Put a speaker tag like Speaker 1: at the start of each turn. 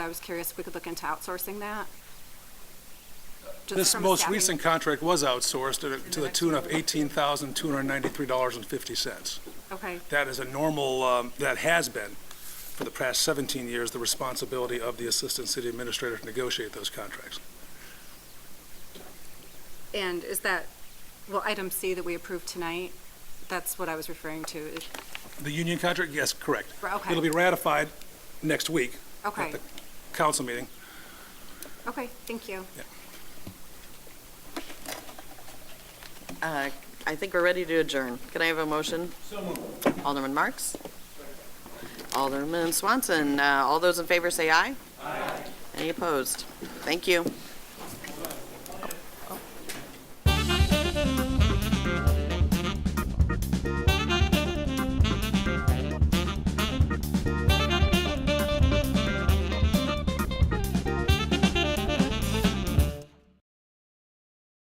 Speaker 1: I was curious if we could look into outsourcing that? Just
Speaker 2: This
Speaker 1: from a
Speaker 2: most
Speaker 1: staffing-
Speaker 2: recent contract was outsourced to- to the tune of $18,293.50.
Speaker 1: Okay,
Speaker 2: That is a normal, um, that has been, for the past 17 years, the responsibility of the Assistant City Administrator to negotiate those contracts.
Speaker 1: and is that, well, item C that we approved tonight, that's what I was referring to. Is-
Speaker 2: The union contract, yes, correct.
Speaker 1: Okay,
Speaker 2: It'll be ratified next week at
Speaker 1: okay,
Speaker 2: the council meeting.
Speaker 1: okay, thank you.
Speaker 3: Uh, I think we're ready to adjourn. Can I have a motion? Alderman Marks? Alderman Swanson, uh, all those in favor say aye. Aye. Any opposed? Thank you.